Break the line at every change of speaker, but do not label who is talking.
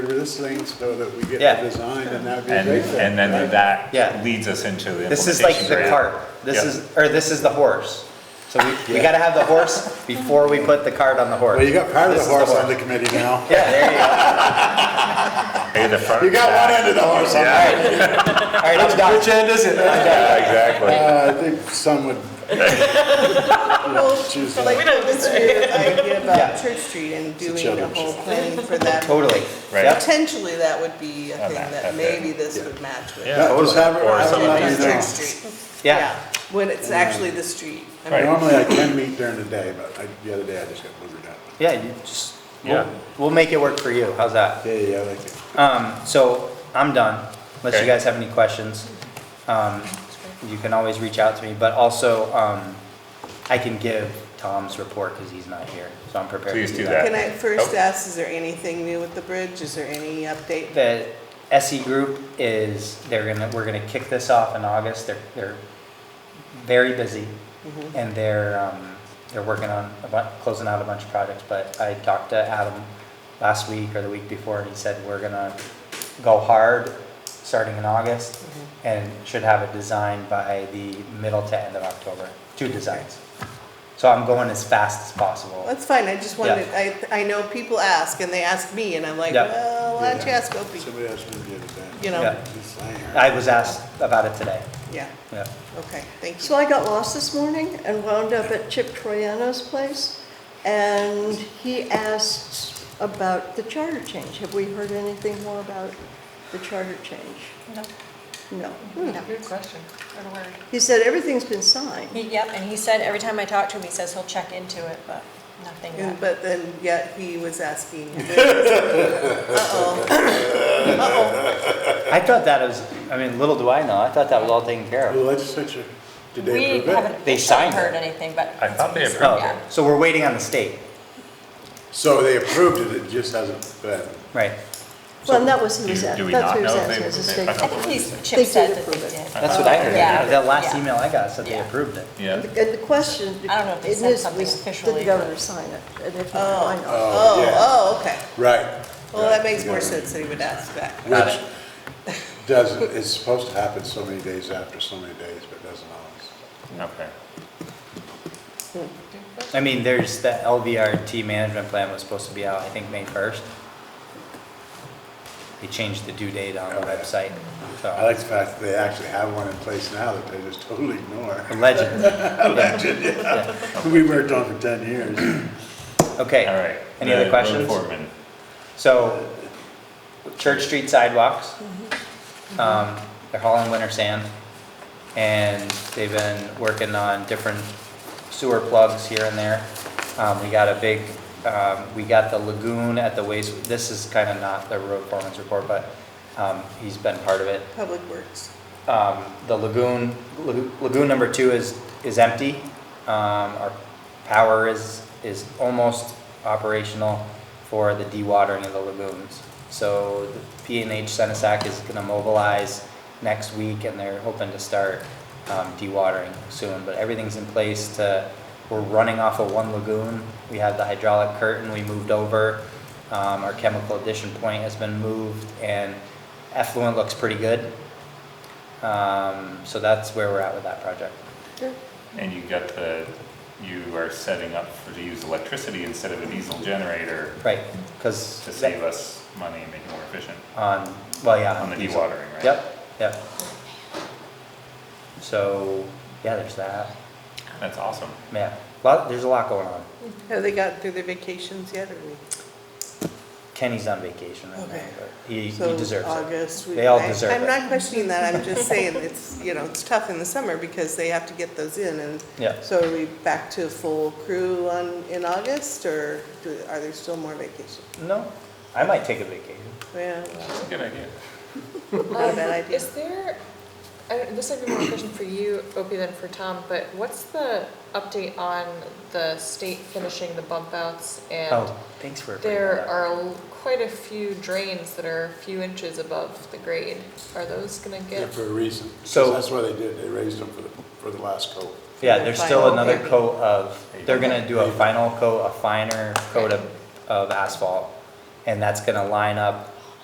this thing so that we get
Yeah.
it designed and that'd be a
And,
great thing.
and then
right?
Yeah.
that leads us into the implementation
This is like the
grant.
cart. This
Yeah.
is, or this is the horse. So we, we gotta have the horse before we put the cart on the horse.
Well, you got part of the
This is
horse on the committee now.
Yeah, there you go.
Hey, the front.
You got one
back.
end of the horse on
Yeah,
that.
All right, all right, I'm done.
end is it?
yeah, exactly.
Uh, I think some would
Well,
choose
Like
that.
this weird idea
Yeah.
about Church Street and doing a
children's
whole
show.
planning for that.
Totally.
Right.
Yep.
Potentially, that would be a
Oh,
thing
that-
that
that's it.
maybe this would match with.
Yeah.
No, just have it,
Or
have it
something
let
Church
me
like
know.
Street.
Yeah.
When it's actually the street. I mean,
Right.
Normally I can meet during the day, but I, the other day I just got boogered up.
Yeah, you just,
Yeah.
we'll, we'll make it work for you. How's that?
Yeah, yeah, I like it.
Um, so I'm done, unless you
Okay.
guys have any questions. Um, you can always reach out to me, but also, um, I can give Tom's report because he's not here, so I'm prepared to
Please
do
do
that.
Can I first
Oh.
ask, is there anything new with the bridge? Is there any update?
The SE group is, they're gonna, we're gonna kick this off in August. They're, they're very busy. And they're, um, they're working on, a bu- closing out a bunch of projects, but I talked to Adam last week or the week before, and he said we're gonna go hard, starting in August, and should have it designed by the middle to end of October, two designs. So I'm going as fast as possible.
That's fine, I just wanted, I,
Yeah.
I know people ask, and they ask me, and I'm like,
Yeah.
well, why don't you ask Opie?
Somebody asked me the other day.
You know,
Yeah.
Just saying.
I was asked about it today,
yeah,
yeah.
okay, thank
So
you.
I got lost this morning and wound up at Chip Troyano's place, and he asked about the charter change. Have we heard anything more about the charter change?
No,
No.
no. Good question. Or a word.
He said everything's been signed.
He- Yep, and he said, every time I talk to him, he says he'll check into it, but nothing
And-
yet.
But then, yet, he was asking. Uh-oh, uh-oh,
I thought that was, I mean, little do I know, I thought that was all taken care
The
of.
legislature, did they
We
approve it?
haven't
They
officially
signed
heard
it.
anything, but.
I thought they approved
Oh,
Yeah.
so we're waiting on the state,
So they approved it, it just hasn't been.
right?
Well, and that was, he
Do
was,
do
at-
we
that's
not
what he was
know if
asking,
they-
was a
they- I
state.
don't
I think
believe
he's,
they-
They
Chip said
did
that
approve
they
it.
did.
That's what I heard,
Yeah.
that last
Yeah.
email I got said they
Yeah.
approved it.
Yeah.
And the question,
I don't know if they
it
said
is,
something
was, did
officially,
the
but-
governor sign it? And if not, why not?
yeah.
oh, oh, okay,
Right.
well, that makes more sense that he would ask that.
Got it.
Doesn't, it's supposed to happen so many days after so many days, but it doesn't always.
Okay.
I mean, there's, the LVRT management plan was supposed to be out, I think, May first. They changed the due date on the
Oh, yeah.
website,
I
so,
like the fact that they actually have one in place now that they just totally ignore.
legend. Yeah.
We worked on for ten years.
Okay.
All right.
Any other
The road
questions?
foreman.
So, Church Street sidewalks, um, they're hauling winter sand. And they've been working on different sewer plugs here and there. Um, we got a big, um, we got the lagoon at the waste, this is kind of not the road foreman's report, but, um, he's been part of it.
Public Works,
Um, the lagoon, lagoon- lagoon number two is, is empty. Um, our power is, is almost operational for the dewatering of the lagoons. So the P and H Senasac is gonna mobilize next week and they're hoping to start, um, dewatering soon. But everything's in place to, we're running off of one lagoon. We have the hydraulic curtain we moved over. Um, our chemical addition point has been moved and effluent looks pretty good. Um, so that's where we're at with that project.
And you got the, you are setting up for to use electricity instead of a diesel generator
Right, because.
to save us money and make it more efficient.
On, well, yeah.
On the
diesel.
dewatering, right?
Yep, yep. So, yeah, there's that.
That's awesome.
Yeah, lot, there's a lot going on.
have they gotten through their vacations yet, or? we-
Kenny's on vacation right now,
Okay.
but he, he
So
deserves it.
August. we-
They all
I-
deserve
I'm
it.
not questioning that, I'm just saying, it's, you know, it's tough in the summer, because they have to get those in, and
Yeah,
So are we back to a full crew on, in August, or do, are there still more vacations?
no, I might take a vacation.
Yeah,
That's a good idea.
not a
Um,
bad idea.
Is there, I don't, this might be more a question for you, Opie, than for Tom, but what's the update on the state finishing the bump outs? And
Oh, thanks for bringing
there
that up.
are l- quite a few drains that are a few inches above the grade. Are those gonna
Yeah,
get?
for a reason.
So-
So that's why they did, they raised them for the, for the last coat.
Yeah, there's still
Final
another
coating.
coat of, they're gonna do a final coat, a finer coat of, of asphalt. And that's gonna line up